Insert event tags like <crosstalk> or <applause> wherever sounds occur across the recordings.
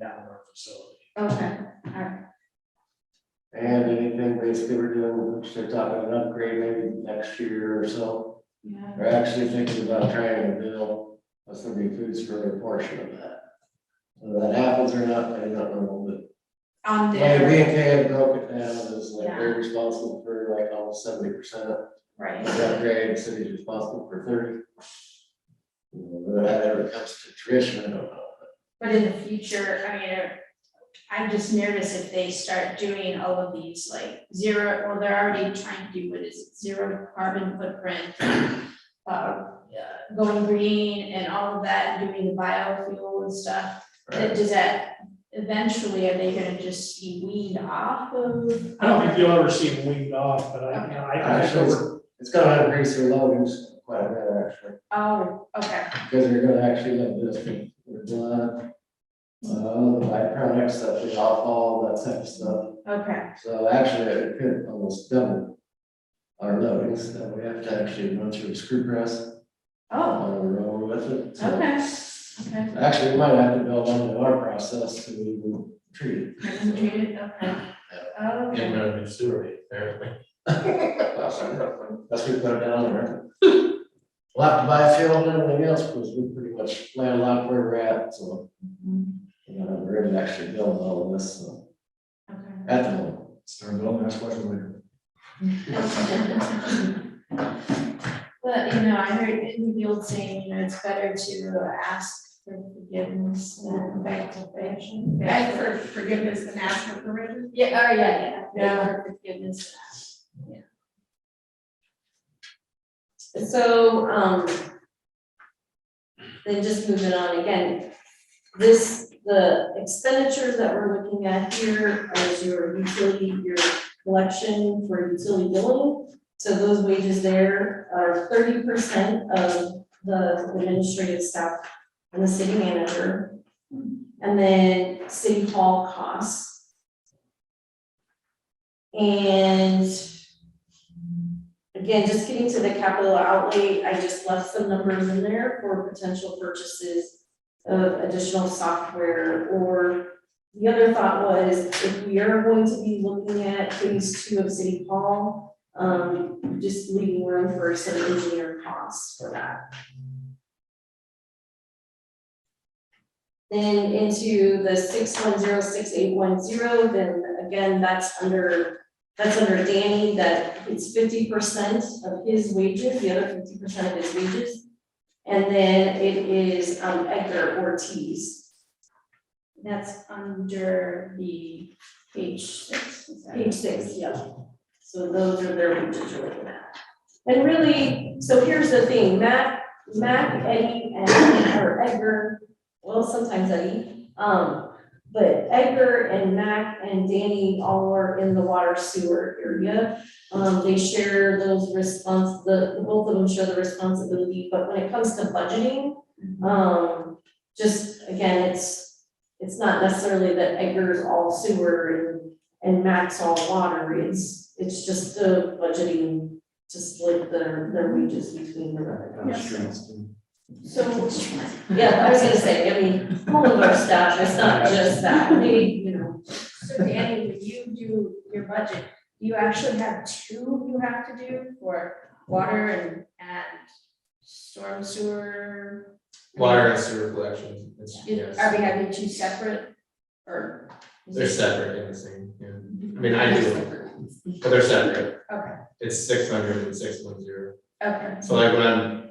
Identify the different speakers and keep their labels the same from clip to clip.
Speaker 1: down our facility.
Speaker 2: Okay,
Speaker 3: And anything basically we're doing, which they're talking an upgrade maybe next year or so.
Speaker 2: yeah,
Speaker 3: We're actually thinking about trying to build a Sunday food store portion of that. Whether that happens or not, I don't know, but.
Speaker 2: on
Speaker 3: Like, we
Speaker 2: there,
Speaker 3: and K have broken down is like they're responsible for like almost seventy percent of
Speaker 2: right,
Speaker 3: the upgrade, city's responsible for thirty. You know, Whether that ever comes to fruition, I don't know.
Speaker 2: but in the future, I mean, uh, I'm just nervous if they start doing all of these, like, zero, or they're already trying to do what is it, zero carbon footprint. Uh, yeah, going green and all of that, doing the biofuel and stuff,
Speaker 3: Right.
Speaker 2: that, does that, eventually, are they gonna just be weaned off of?
Speaker 1: I don't think you'll ever see them weaned off, but I, I, I think
Speaker 3: Actually,
Speaker 1: we're
Speaker 3: it's- it's gonna increase your loadings quite a bit, actually.
Speaker 2: Oh, okay,
Speaker 3: Because you're gonna actually have this, your blood, uh, byproduct stuff, the alcohol, that type of stuff.
Speaker 2: okay,
Speaker 3: So actually, it could almost double our loadings, that we have to actually run through a screw press
Speaker 2: oh,
Speaker 3: on the road with it. So
Speaker 2: okay, okay.
Speaker 3: Actually, we might have to build onto our process to even treat
Speaker 2: Hasn't treated, okay. Oh,
Speaker 4: Getting
Speaker 2: okay.
Speaker 4: rid of the sewer rate, apparently.
Speaker 3: it. That's what we put it down there. We'll have to buy fuel and everything else, because we're pretty much landlocked where we're at, so,
Speaker 2: Mhm.
Speaker 3: you know, we're gonna actually build all of this, so,
Speaker 2: Okay.
Speaker 3: at the moment.
Speaker 5: Start building, ask questions later.
Speaker 2: <laughs> But, you know, I heard in the old saying, you know, it's better to ask for forgiveness than beg for permission.
Speaker 6: Beg for forgiveness and ask for permission.
Speaker 2: Yeah, oh, yeah, yeah. Beg for Forgiveness.
Speaker 7: So, um, then just moving on again, this, the expenditures that we're looking at here is your utility, your collection for utility billing. So those wages there are thirty percent of the administrative staff and the city manager. And then city hall costs. And Again, just getting to the capital outlay, I just left some numbers in there for potential purchases of additional software or the other thought was if we are going to be looking at phase two of City Hall, um, just leaving room for some engineer costs for that. Then into the six one zero six eight one zero, then again, that's under that's under Danny, that it's fifty percent of his wages, the other fifty percent of his wages. And then it is um, Edgar Ortiz,
Speaker 2: That's under the page six. is that
Speaker 7: page six, yeah. So those are their wages you're looking at. And really, so here's the thing, Mac, Mac, Eddie, and, or Edgar, well, sometimes Eddie. Um, but Edgar and Mac and Danny all are in the water sewer area. Um, they share those respons, the, both of them share the responsibility, but when it comes to budgeting, um, just, again, it's, it's not necessarily that Edgar's all sewer and, and Max all water, it's, it's just the budgeting to split their, their wages between the revenue.
Speaker 2: So,
Speaker 7: Yeah, I was gonna say, I mean, all of our staff, it's not just that, maybe, you know,
Speaker 2: so Danny, when you do your budget, you actually have two you have to do for water and, and storm sewer?
Speaker 4: Water and sewer collection, it's,
Speaker 2: You- Are
Speaker 4: yes,
Speaker 2: we having two separate or? is
Speaker 4: they're
Speaker 2: it-
Speaker 4: separate in the same, yeah, I mean, I do, but they're separate.
Speaker 2: Mhm. Okay.
Speaker 4: It's six hundred and six one zero,
Speaker 2: Okay,
Speaker 4: so like when I'm,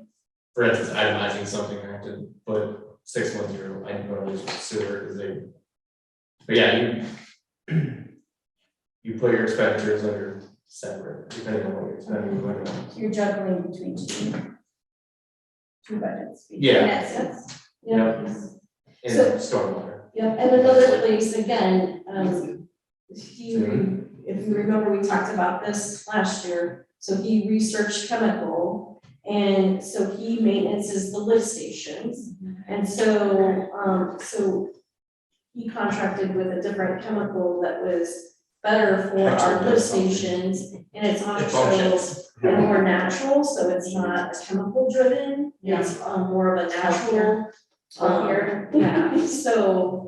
Speaker 4: for instance, itemizing something, I have to put six one zero, I normally use sewer, because they. But yeah, you. You put your expenditures under separate, depending on what you're spending, what you're-
Speaker 2: so you're juggling between two. Two budgets.
Speaker 4: Yeah.
Speaker 2: Yes, that's-
Speaker 7: yeah.
Speaker 4: and stormwater.
Speaker 7: Yeah, and another place, again, um, he, re- if you remember, we talked about this last year. So he researched chemical, and so he maintenances the lift stations. And so, um, so he contracted with a different chemical that was better for our lift stations, and it's on
Speaker 4: It functions.
Speaker 7: and more natural, so it's not chemical driven, it's um more of a natural.
Speaker 2: Or
Speaker 7: um,
Speaker 2: here.
Speaker 7: yeah, so